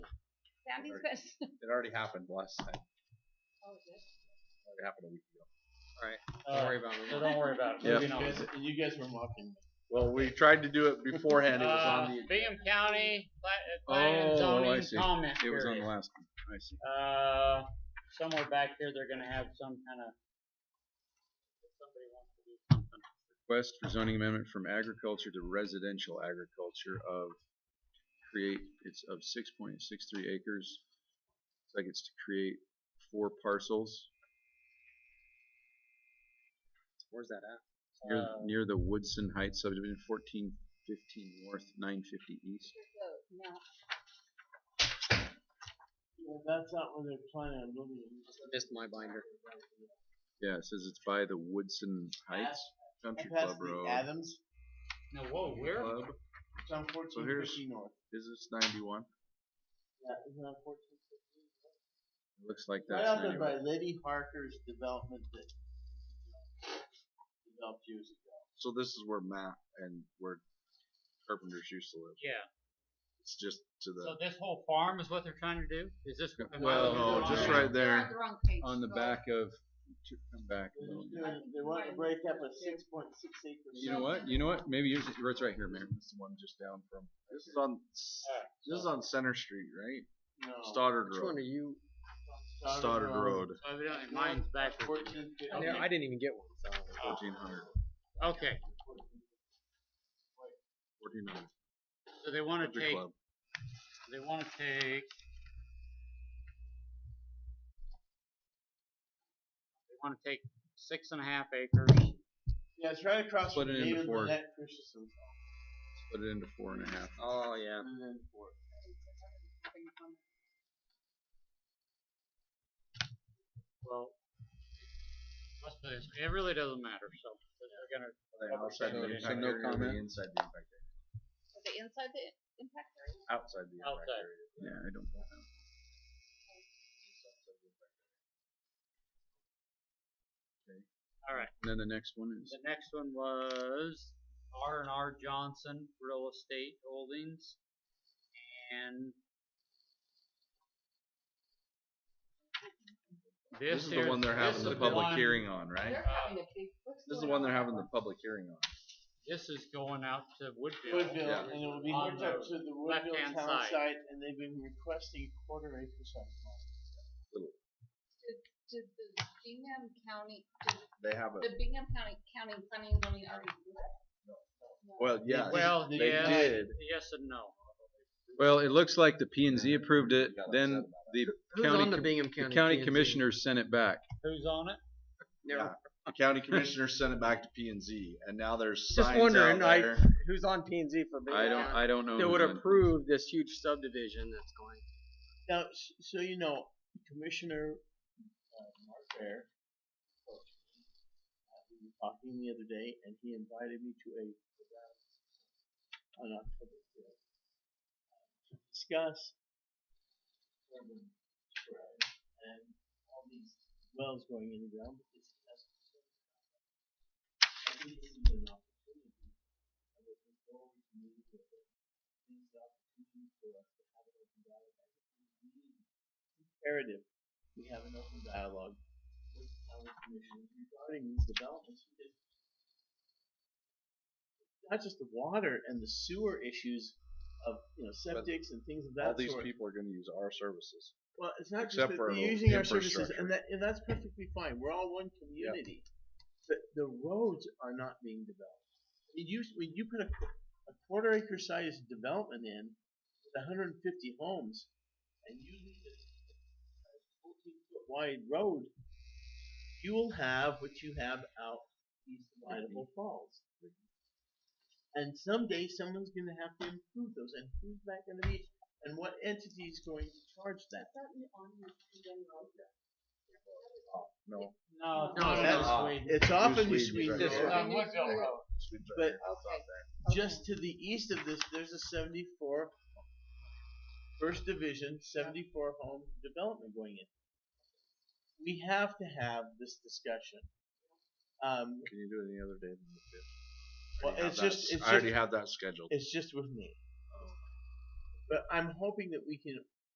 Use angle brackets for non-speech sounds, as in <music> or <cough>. Sandy's <laughs> best. It already happened last time. It Oh, is it? already happened a week ago. Uh, Don't worry about So it. don't worry about it. Yeah. Moving You on. guys, you guys were mocking me. Well, we tried to do it beforehand. It was Ah, Uh, on the. Bingham County pla- Oh, planning and I zoning see. comment It was on the period. last one. I see. Uh, somewhere back here, they're gonna have some kind of. Somebody wants to do something. Request for zoning amendment from agriculture to residential agriculture of create, it's of six point six three acres. It's like it's to create four parcels Where's that at? near, Ah. Uh, near the Woodson Heights subdivision, fourteen fifteen north, nine fifty east. Here's those. No. Well, that's not where they're planning on moving. Missed my binder. Yeah, it says it's by the Woodson Heights Country Club Past the Road. Adams, No, whoa, where? Club, it's on fourteen here's- fifty north. is this ninety-one? Yeah, isn't that fourteen fifty? Looks like Right that's out there by ninety-one. Lady Harker's development that developed years ago. So this is where Matt and where carpenters used to live. Yeah, It's just to the. so this whole farm is what they're trying to do? Is this? am I Well, looking at no, the Oh, just wrong- right You're there on the wrong page. on the Go. back of, to come back a little. They're- They want to break up a six point six acre. You know what, you know what, maybe yours, is- yours right here, man, this is the one just down from, this is on, s- Alright, this is on Center Street, right? No. um, Stoddard Which one are Road. you? Stoddard Road, so Evidently, mine's backwards. Fourteen fifty. Okay. I didn't even get one. So. fourteen hundred, Okay, fourteen hundred, so they wanna country take, club. they wanna take. They wanna take six and a half acres. Yeah, it's right across Split from it into David four. Lynette Christensen's house. Put it into four and a half. Oh yeah. And then four. Well, let's put this- it really doesn't matter, so they're gonna. Outside So the impact area no or the comment? Inside the impact area, Is it inside the impact area? outside the impact Outside. area. Yeah, I don't know. All right. And then the next one is, The next one was R and R Johnson Real Estate Holdings, and this is the here- one they're this having is the public one- hearing on, right? They're having a big. what's This is the going one they're on? having the public hearing on. This is going out to Woodville. Woodville, Yeah. and it will be On hooked up the to the Woodville left-hand town side. site, and they've been requesting quarter acre site. Did the Bingham County, did They have a, the Bingham County, County planning and zoning already do that? No. well, yes. Well, They yes, did. yes and no. Well, it looks like the P and Z approved it, then the Who's County on the com- Bingham the County? county PNC? commissioners sent it back. Who's on it? Never- Yeah. The county commissioners sent it back to P and Z, and now there's Just signs wondering, out I- there. Who's on P and Z for Bingham? I don't, I don't know. That would who's in. approve this huge subdivision that's going. Now, s- so you know, Commissioner uh, Mark Bear, uh, we were uh, talking the other day, and he invited me to a event on October fifth to discuss urban sprawl and all these wells going in the ground. But this has to be done. I think this is an opportunity. I would look forward to meeting with him. This is an opportunity for us to have an open dialogue. I think we need imperative we have an open dialogue with the county commission regarding these developments. because Not just the water and the sewer issues of, you know, septics and things of All that these sort. people are gonna use our services. Well, it's not just except that for they're our using our services infrastructure. and that, and that's perfectly fine. We're all one community. But the roads are not being developed. It used, when you put a, qu- a quarter acre sized development in with hundred and fifty homes and you leave it as a fourteen foot wide road, you will have what you have out east of Idaho Falls. And someday someone's gonna have to improve those and who's that gonna be? And what entity is going to charge that? Is that on your Freedom Road? Oh, No. No, No, no, that's- no. Sweet. It's off in New Sweden, Sweden. right? This Yeah. one. on Woodville Road. But- Okay. Just to the east of this, there's a 74 first division, 74 home development going in. We have to have this discussion. Um, Can you do it any other day than the fifth? I well, already have it's that just, s- it's I already just, have that scheduled. it's just with me. But I'm hoping that we can